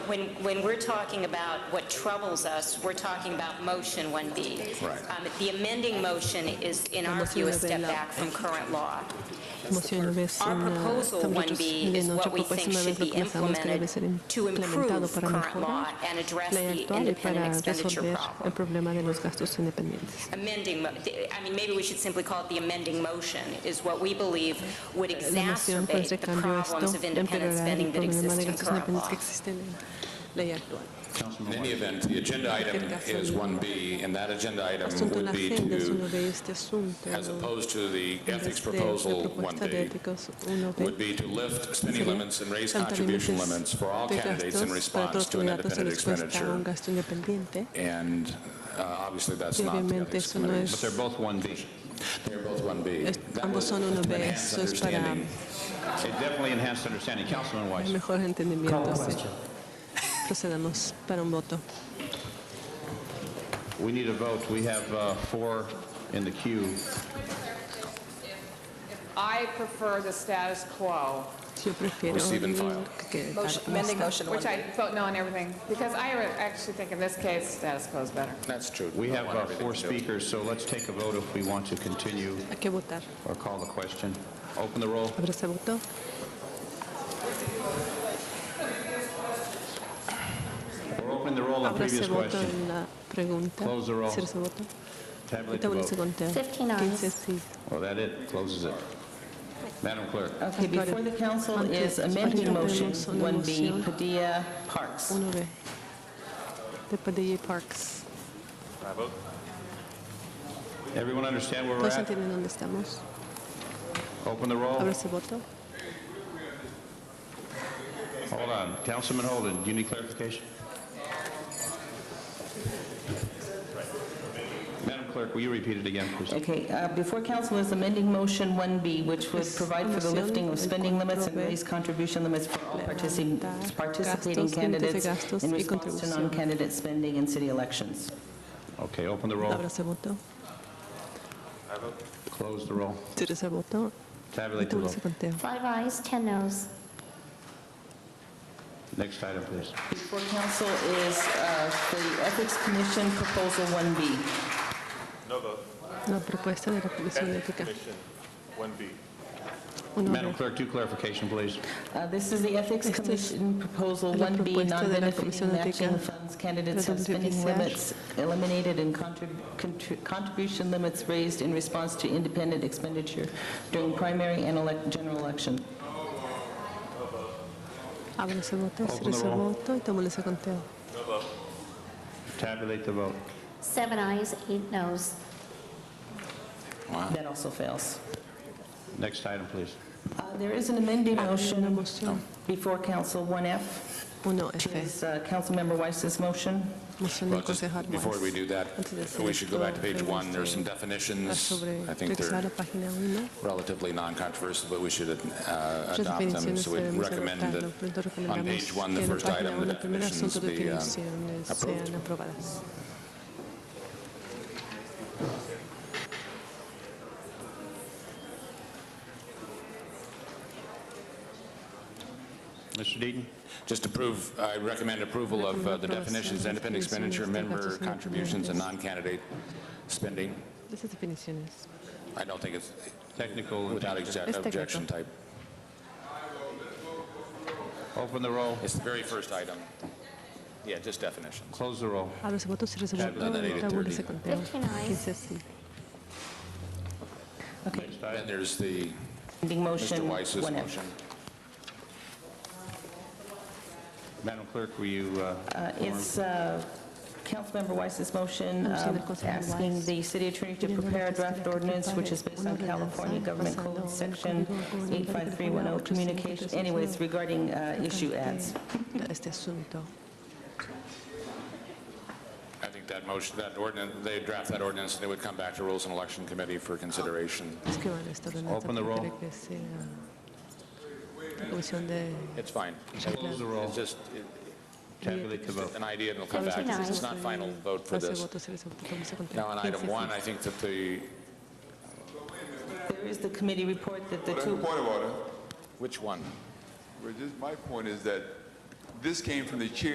when, when we're talking about what troubles us, we're talking about motion 1B. Right. Um, The amending motion is, in our view, a step back from current law. Moción ves Our en, ah, proposal también 1B is what en nuestra we propuesta think pues, una should vez lo be pensamos que debe ser implemented to implementado improve para current law mejorar and address la the actual y independent para expenditure resolver problem. el problema de los gastos independientes. amending, mo- th- I mean, maybe we should simply call it the amending motion, is what we believe would La moción con exacerbate este the cambio problems esto of independent empeorará spending el that problema exist de in gastos current independientes law. que existen en la ley actual. Councilman In any Wong. event, the agenda item is 1B, and that agenda item Asunto de la would be agenda es uno to, de este asunto. as opposed to the en ethics vez de la proposal propuesta de 1B, éticos uno would de be to lift spending sería limits and raise tanto contribution límites limits for all de candidates gastos in para response todos to an los candidatos en independent respuesta a un expenditure. gasto independiente. And uh, obviously, that's Y not the obviamente ethics eso no committee. But they're both 1B. They're both 1B. Es- That ambos son would 1B, enhance eso es para- understanding. It definitely enhanced understanding. Councilman El Weiss. mejor entendimiento. sí. Procedamos para un voto. We need a vote. We have uh, four in the queue. I prefer the status quo, Yo prefiero Receive and file. que Amending motion which 1B. I vote no on everything, because I actually think in this case, status quo is better. That's true. We Don't have want uh, everything four to do it. speakers, so let's take a vote if we want to continue hay que votar. or call the question. Open the roll. Ahora se votó. We're opening the roll on Ahora se previous votó question. en la pregunta. Close the roll. Cierra se votó. Tabulate the Tabúlense vote. con conteo. 15 ayes. 15 sí. Well, that it, closes it. Madam Clerk. Okay, before the council is amending motion 1B, Padilla Parks. 1B. De Padilla y Parks. Everyone understand where we're ¿Todos at? entienden dónde estamos? Open the roll. Ahora se votó. Hold on. Councilman Holden, do you need clarification? Madam Clerk, will you repeat it again, please? Okay, uh, before council is amending motion 1B, which would Es provide for the moción lifting of spending limits and 4B. raise contribution limits for all partici- Levantar participating gastos, límites de candidates gastos in y response to contribución. non-candidate spending in city elections. Okay, open the roll, Ahora se votó. close the roll, Cierra se votó. tabulate the Tabúlense vote. con conteo. Five ayes, 10 noes. Next item, please. Before council is uh, the Ethics Commission Proposal 1B. La propuesta de la Comisión Ética. 1B. Madam Clerk, do clarification, please. Uh, This is the Ethics Esta es Commission Proposal la 1B, propuesta de la Comisión non-benefiting Ética matching funds, candidates have spending Presidencial. limits eliminated and contrib- contri- contribution limits raised in response to independent expenditure during primary and elec- general election. Ahora se Oh, votó. Open Cierra the se roll. votó y tabúlense con conteo. Tabulate the vote. Seven ayes, eight noes. That also fails. Next item, please. Uh, There is an amending Ah, Una motion moción. before Council 1F, which 1F. is uh, Councilmember Weiss's motion. Moción Well, del just concejal Before Weiss. we do that, Antes de hacer we should go back to esto, page one. There's some tenemos que hablar definitions. sobre- I think regresar a they're la página 1. relatively non-controversial, but we should uh, Otras adopt them. definiciones So we debemos recommend adoptarlo. Por lo tanto, that on page recomendamos one, the que en la first página item, the 1, el primer definitions asunto de be uh, definiciones approved. sean aprobadas. Mr. Deaton? Just approve, I recommend approval of uh, the Recomiendo definitions, aprobación, independent expenditure, definiciones de member gastos contributions, and independientes. non-candidate spending. De Esas definiciones. I don't think it's Technical and without Es exec- técnico. objection type. Open the roll, It's the very first item. Yeah, just definitions. close the roll. Abre ese voto, cierra ese voto, done at 8:30. tabúlese ese conteo. 15 ayes. 15 sí. Okay, Next Then item, there's the amending Mr. motion Weiss's 1F. motion. Madam Clerk, will you, uh, Uh, It's uh, Councilmember Weiss's motion Vamos a um, ver, Councilmember asking Weiss. the city attorney to Pidiendo a la prepare a Fiscalía draft que ordinance, prepare which is based una on California ordenanza Government basada Code, en el Código Section Gubernamental 85310, communication, anyways, regarding uh, issue oh ads. Este asunto. I think that motion, that ordinance, they draft that ordinance, and it would come back to Rules and Election Committee for consideration. Es que van a esta ordenanza Open the roll. para que regrese a la Comisión de... It's fine. Close the roll. It's just it- tabulate the vote. an idea, and it'll come back. Fifteen ayes. It's not final vote for Cierra ese this. voto, cierra ese voto, tabúlese conteo. Now, on item 15 sí. one, I think that the, There is the committee report that the two... Point of order. which one? Well, just- My point is that this came from the chair